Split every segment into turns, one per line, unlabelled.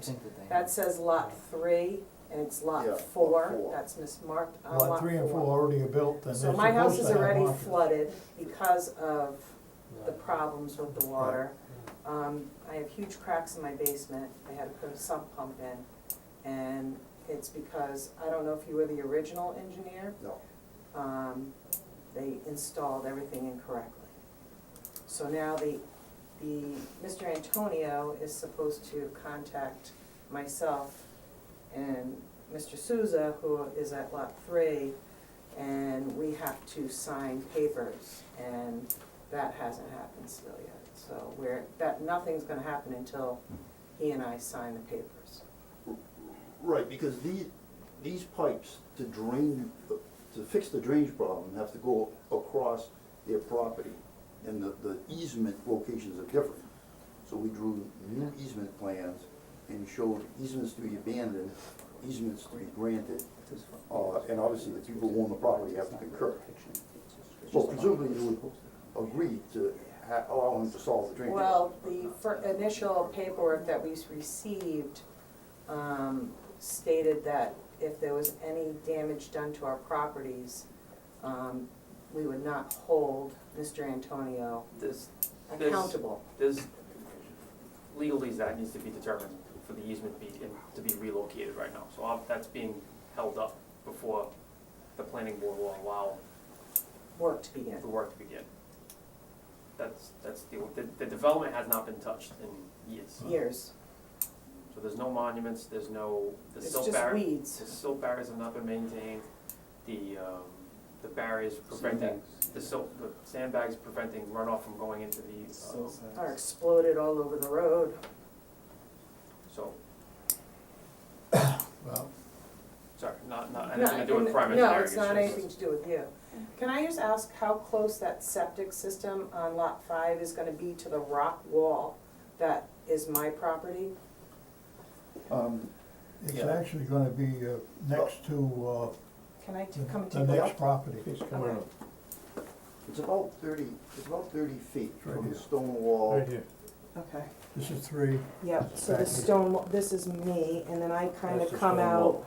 think that they.
That says lot three, and it's
Yeah,
lot
lot
four,
four.
that's mismarked on lot four.
Lot three and four already are built, and they're supposed to
So my house is
have
already
markers.
flooded because of the problems with the water. Um, I have huge cracks in my basement, I had to put a sump pump in, and it's because, I don't know if you were the original engineer,
No,
um, they installed everything incorrectly. So now the, the, Mr. Antonio is supposed to contact myself and Mr. Souza, who is at lot three, and we have to sign papers, and that hasn't happened still yet. So we're, that, nothing's gonna happen until he and I sign the papers.
right, because these, these pipes to drain, to fix the drainage problem have to go across their property. And the, the easement locations are different. So we drew new easement plans and showed easements to be abandoned, easements to be granted. Uh, and obviously the people who own the property have to concur. So presumably you would agree to ha- allow him to solve the drainage.
Well, the fir- initial paperwork that we received um, stated that if there was any damage done to our properties, um, we would not hold Mr. Antonio
There's, There's-
accountable.
there's legalese that needs to be determined for the easement be, to be relocated right now. So I'll- that's being held up before the planning board will allow
Work to begin.
the work to begin. That's, that's the, the, the development has not been touched in years.
Years.
So there's no monuments, there's no, the
It's
silt
just
barrier,
weeds.
the silt barriers have not been maintained. The, um, the barriers preventing, the silt, the sandbags preventing runoff from going into the, uh,
Are exploded all over the road.
so,
Well,
sorry, not, not
No,
anything to do with
and-
private
No,
barriers,
it's not
just-
anything to do with you. Can I just ask how close that septic system on lot five is gonna be to the rock wall that is my property?
Um,
it's
Yeah.
actually gonna be uh, next to
Can I
uh,
t- come
the- the
take a look?
next property.
All right.
It's about thirty, it's about thirty feet
right
from
here.
the stone wall.
here.
Okay,
This is three.
yep, so the
Back.
stone, wa- this is me, and then I kind of
That's the
come
stone
out
wall.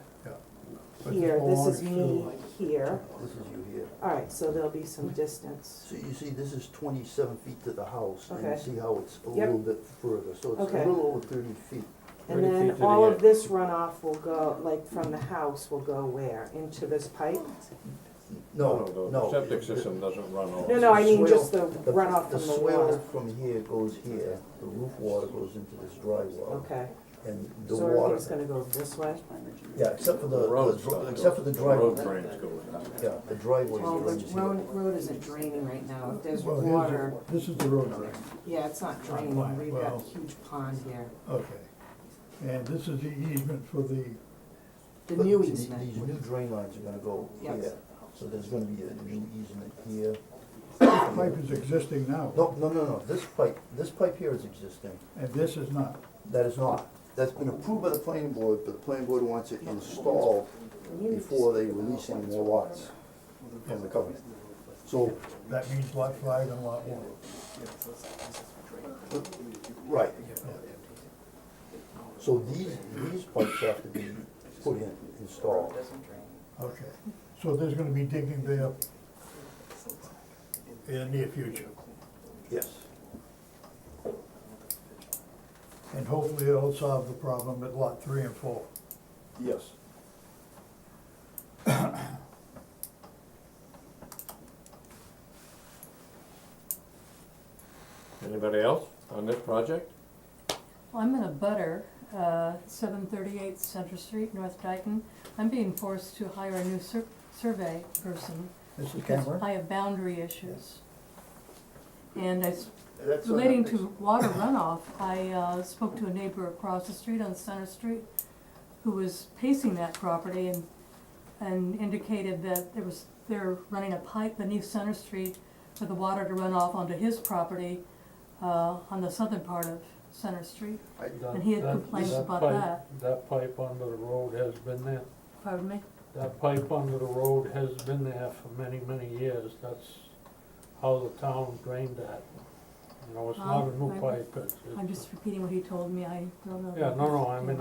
but
here, this is me
belongs
here.
This is you here.
All right, so there'll be some distance.
So you see, this is twenty-seven feet to the house, and you
Okay.
see how it's a
Yep.
little bit further, so it's a
Okay.
little over thirty feet.
And then all of this runoff will go, like from the house will go where? Into this pipe?
No, no.
Septic
it-
system doesn't run all.
No, no, I mean
Swale-
just the
the-
runoff from the water.
swale from here goes here, the roof water goes into this dry well,
Okay,
and the
so
water,
everything's gonna go this way?
yeah, except for the,
The road's
the dr-
not
except for
built.
the
Road
driveway,
drains go in.
yeah, the driveway
Well, the
drains here.
road, road isn't draining right now, if there's
Well, here's the-
water,
This is the road drain,
yeah, it's not
Well,
draining, we've got
well-
a huge pond here,
okay. And this is the easement for the,
the
But
new
th-
easement.
These new drain lines are gonna go
Yes.
here, so there's gonna be a new easement here.
pipe is existing now,
No, no, no, no, this pipe, this pipe here is existing,
and this is not.
that is not. That's been approved by the planning board, but the planning board wants it installed
You need to
before they
speak about
release any
what's
more
going
lots
on.
from the covenant. So,
That means lot five and lot one.
right, so these, these pipes have to be put in, installed.
Okay, so there's gonna be digging there in the near future,
Yes,
and hopefully it'll solve the problem at lot three and four.
yes.
Anybody else on this project?
Well, I'm in a butter, uh, seven thirty-eight Center Street, North Dayton. I'm being forced to hire a new sur- survey person
This is
because
Cameron?
I have boundary issues. And it's
That's on the
relating
next-
to water runoff, I, uh, spoke to a neighbor across the street on Center Street who was pacing that property and, and indicated that there was, they're running a pipe beneath Center Street for the water to run off onto his property, uh, on the southern part of Center Street.
That-
And he had
that-
complaints about
pipe-
that.
That pipe under the road has been there,
Pardon me?
that pipe under the road has been there for many, many years, that's how the town drained that. You know, it's not a
Um,
new
I-
pipe, it's, it's-
I'm just repeating what he told me, I don't know.
yeah, no, no, I mean,